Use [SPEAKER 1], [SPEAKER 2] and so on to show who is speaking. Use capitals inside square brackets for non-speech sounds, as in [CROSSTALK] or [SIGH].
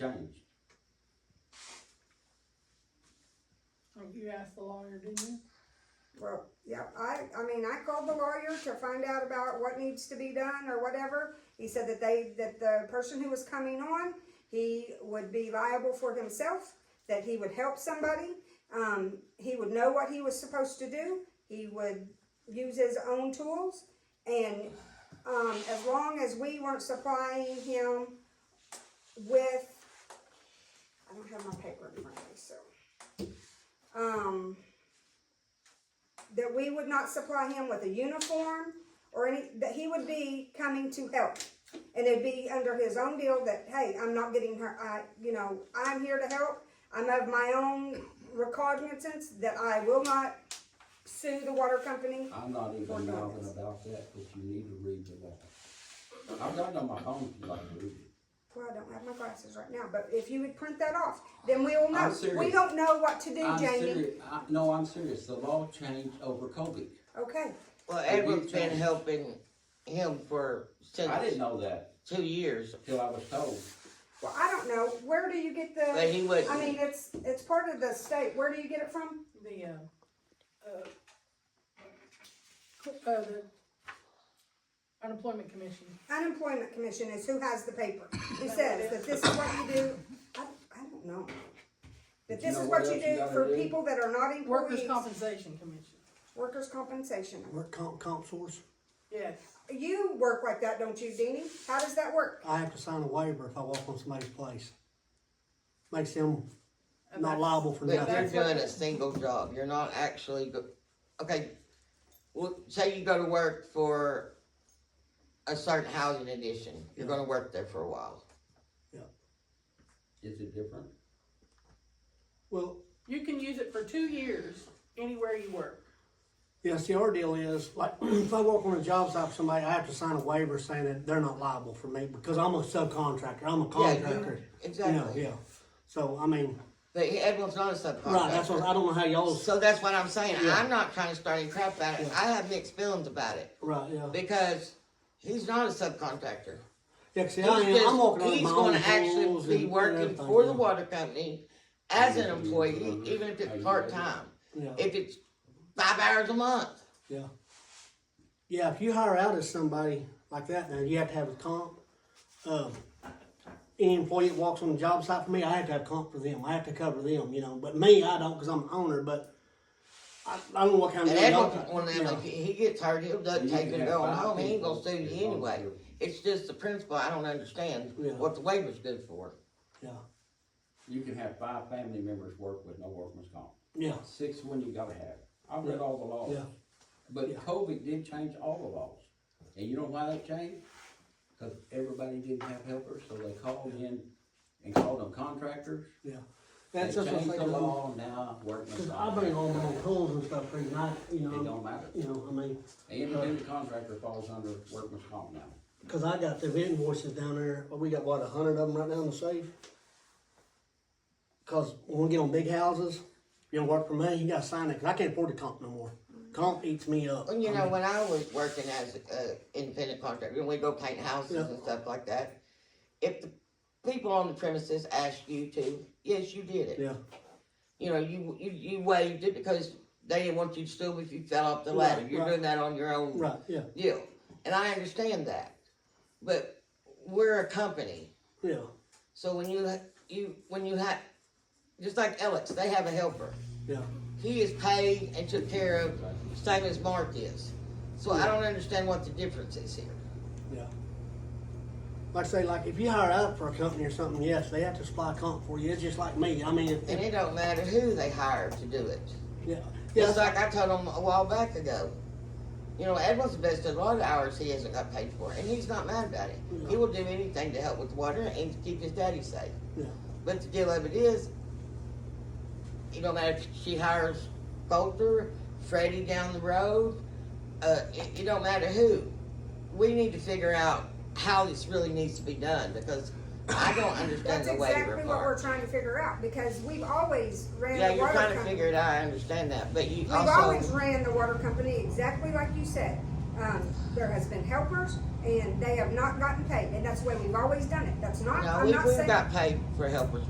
[SPEAKER 1] changed.
[SPEAKER 2] Oh, You asked the lawyer, didn't you?
[SPEAKER 3] Well, yeah, I, I mean, I called the lawyer to find out about what needs to be done or whatever. He said that they, that the person who was coming on, he would be liable for himself, that he would help somebody. Um, he would know what he was supposed to do. He would use his own tools. And, um, as long as we weren't supplying him with, I don't have my paper in front of me, so. Um, that we would not supply him with a uniform or any, that he would be coming to help. And it'd be under his own deal that, hey, I'm not getting her, I, you know, I'm here to help. I'm of my own recognizance that I will not sue the water company.
[SPEAKER 1] I'm not
[SPEAKER 3] Or
[SPEAKER 1] even
[SPEAKER 3] not.
[SPEAKER 1] mouthing about that, but you need to read the law. I've got it on my phone if you like to read it.
[SPEAKER 3] Well, I don't have my glasses right now, but if you would print that off, then we'll know. We
[SPEAKER 1] serious.
[SPEAKER 3] don't know what to do,
[SPEAKER 1] I'm
[SPEAKER 3] Jamie.
[SPEAKER 1] serious, I, no, I'm serious, the law changed over COVID.
[SPEAKER 3] Okay,
[SPEAKER 4] Well,
[SPEAKER 1] Have you
[SPEAKER 4] Edward's been
[SPEAKER 1] changed?
[SPEAKER 4] helping him for
[SPEAKER 1] I didn't
[SPEAKER 4] since
[SPEAKER 1] know that
[SPEAKER 4] two years.
[SPEAKER 1] till I was told.
[SPEAKER 3] well, I don't know. Where do you get
[SPEAKER 4] But
[SPEAKER 3] the,
[SPEAKER 4] he wouldn't.
[SPEAKER 3] I mean, it's, it's part of the state. Where do you get it from?
[SPEAKER 2] The, uh, uh, cl- uh, the unemployment commission.
[SPEAKER 3] unemployment commission is who has the paper, who
[SPEAKER 2] Is that
[SPEAKER 3] says
[SPEAKER 2] what it
[SPEAKER 3] that this is what you do, I, I don't know. That
[SPEAKER 1] But you
[SPEAKER 3] this
[SPEAKER 1] know
[SPEAKER 3] is
[SPEAKER 1] what
[SPEAKER 3] what you
[SPEAKER 1] else you
[SPEAKER 3] do
[SPEAKER 1] gotta
[SPEAKER 3] for
[SPEAKER 1] do?
[SPEAKER 3] people that are not
[SPEAKER 2] Workers'
[SPEAKER 3] employees,
[SPEAKER 2] compensation commission.
[SPEAKER 3] workers' compensation.
[SPEAKER 5] Work comp, comp source,
[SPEAKER 2] Yes.
[SPEAKER 3] You work like that, don't you, Deanie? How does that work?
[SPEAKER 5] I have to sign a waiver if I walk on somebody's place. Makes them
[SPEAKER 2] and
[SPEAKER 5] not
[SPEAKER 2] that's-
[SPEAKER 5] liable for
[SPEAKER 4] But you're
[SPEAKER 5] nothing.
[SPEAKER 2] that's what-
[SPEAKER 4] doing a single job. You're not actually go- okay. Well, say you go to work for a certain housing addition. You're
[SPEAKER 5] Yeah.
[SPEAKER 4] going to work there for a while.
[SPEAKER 1] Is it different?
[SPEAKER 5] Well,
[SPEAKER 2] You can use it for two years anywhere you work.
[SPEAKER 5] yeah, see, our E deal is, like, [CLEARS THROAT] if I walk on a job site for somebody, I have to sign a waiver saying that they're not liable for me because I'm a subcontractor, I'm a
[SPEAKER 4] Yeah, you-
[SPEAKER 5] contractor. You know,
[SPEAKER 4] Exactly.
[SPEAKER 5] yeah. So, I mean,
[SPEAKER 4] But he- Edward's not a subcontractor.
[SPEAKER 5] right, that's what, I don't know how y'all's,
[SPEAKER 4] so that's what I'm saying.
[SPEAKER 5] Yeah.
[SPEAKER 4] I'm not trying to start any crap about it.
[SPEAKER 5] Yeah.
[SPEAKER 4] I have mixed feelings about it
[SPEAKER 5] right, yeah.
[SPEAKER 4] because he's not a subcontractor.
[SPEAKER 5] Yeah, 'cause see,
[SPEAKER 4] He's,
[SPEAKER 5] I am, I'm walking
[SPEAKER 4] just,
[SPEAKER 5] on
[SPEAKER 4] he's
[SPEAKER 5] my
[SPEAKER 4] going
[SPEAKER 5] own
[SPEAKER 4] to
[SPEAKER 5] tools
[SPEAKER 4] actually be
[SPEAKER 5] and
[SPEAKER 4] working
[SPEAKER 5] everything,
[SPEAKER 4] for the
[SPEAKER 5] yeah.
[SPEAKER 4] water company as an
[SPEAKER 1] Are you-
[SPEAKER 4] employee, even if
[SPEAKER 1] are
[SPEAKER 4] it's
[SPEAKER 1] you
[SPEAKER 4] part
[SPEAKER 1] ready?
[SPEAKER 4] time.
[SPEAKER 5] Yeah,
[SPEAKER 4] If it's five hours a month,
[SPEAKER 5] yeah. Yeah, if you hire out as somebody like that, now you have to have a comp. Um, any employee that walks on the job site for me, I have to have comp for them. I have to cover them, you know. But me, I don't because I'm an owner. But I, I don't know what kind
[SPEAKER 4] and
[SPEAKER 5] of
[SPEAKER 4] Edward,
[SPEAKER 5] job.
[SPEAKER 4] one of them,
[SPEAKER 5] yeah.
[SPEAKER 4] like, he gets hurt, he'll duck
[SPEAKER 1] You
[SPEAKER 4] take
[SPEAKER 1] can
[SPEAKER 4] it
[SPEAKER 1] have
[SPEAKER 4] going
[SPEAKER 1] five
[SPEAKER 4] home, he ain't
[SPEAKER 1] people
[SPEAKER 4] gonna sue
[SPEAKER 1] as
[SPEAKER 4] you
[SPEAKER 1] long
[SPEAKER 4] anyway.
[SPEAKER 1] as you're-
[SPEAKER 4] It's just the principle, I don't understand
[SPEAKER 5] Yeah.
[SPEAKER 4] what the waiver's good for.
[SPEAKER 5] yeah,
[SPEAKER 1] You can have five family members work with no workman's comp.
[SPEAKER 5] yeah,
[SPEAKER 1] Six one you gotta have. I've read all the
[SPEAKER 5] yeah,
[SPEAKER 1] laws. But
[SPEAKER 5] Yeah.
[SPEAKER 1] COVID did change all the laws. And you know why that changed? Cause everybody didn't have helpers, so they called in and called them contractors.
[SPEAKER 5] yeah.
[SPEAKER 1] They
[SPEAKER 5] That's just
[SPEAKER 1] changed
[SPEAKER 5] what
[SPEAKER 1] the
[SPEAKER 5] I'm saying.
[SPEAKER 1] law now, workman's
[SPEAKER 5] Because I
[SPEAKER 1] comp.
[SPEAKER 5] bring
[SPEAKER 1] It
[SPEAKER 5] all my own tools and stuff, and I, you know,
[SPEAKER 1] don't matter.
[SPEAKER 5] you know, I mean,
[SPEAKER 1] Independent contractor falls under workman's comp now.
[SPEAKER 5] because I got the invoices down there. well, We got what a hundred of them right now in the safe. Because when we get on big houses, you don't work for me. You got to sign it 'cause I can't afford the comp no more. Comp eats me up.
[SPEAKER 4] And you
[SPEAKER 5] I
[SPEAKER 4] know,
[SPEAKER 5] mean,
[SPEAKER 4] when I was working as an independent contractor, and we go paint houses
[SPEAKER 5] Yeah.
[SPEAKER 4] and stuff like that, if the people on the premises asked you to, yes, you did it.
[SPEAKER 5] Yeah,
[SPEAKER 4] you know, you, you, you waived it because they didn't want you to sue if you fell off the ladder.
[SPEAKER 5] Right,
[SPEAKER 4] You're
[SPEAKER 5] right.
[SPEAKER 4] doing that on your own
[SPEAKER 5] right, yeah,
[SPEAKER 4] deal. And I understand that. But we're a company.
[SPEAKER 5] yeah,
[SPEAKER 4] So when you, you, when you have, just like Alex, they have a helper.
[SPEAKER 5] yeah.
[SPEAKER 4] He is paid and took care of, same as Mark is. So I don't understand what the difference is here.
[SPEAKER 5] Yeah. Like I say, like if you hire out for a company or something, yes, they have to supply comp for you. It's just like me. I mean, if,
[SPEAKER 4] And it don't matter who they hire to do it.
[SPEAKER 5] yeah, yeah,
[SPEAKER 4] Just like I told him a while back ago. You know, Edward's invested a lot of hours he hasn't got paid for, and he's not mad about it. He will do anything to help with water and to keep his daddy safe.
[SPEAKER 5] yeah,
[SPEAKER 4] But the deal of it is, you know, matter if she hires Bolter, Freddie down the road, uh, it, it don't matter who. We need to figure out how this really needs to be done because I don't understand
[SPEAKER 3] That's
[SPEAKER 4] the waiver
[SPEAKER 3] exactly what
[SPEAKER 4] part.
[SPEAKER 3] we're trying to figure out, because we've always ran
[SPEAKER 4] yeah,
[SPEAKER 3] the
[SPEAKER 4] you're
[SPEAKER 3] water
[SPEAKER 4] trying to
[SPEAKER 3] company.
[SPEAKER 4] figure it out. I understand that, but you
[SPEAKER 3] We've
[SPEAKER 4] also
[SPEAKER 3] always ran the water company exactly like you said. Um, there has been helpers and they have not gotten paid, and that's the way we've always done it. That's not,
[SPEAKER 4] No,
[SPEAKER 3] I'm
[SPEAKER 4] we,
[SPEAKER 3] not
[SPEAKER 4] we
[SPEAKER 3] saying.
[SPEAKER 4] got paid for helpers.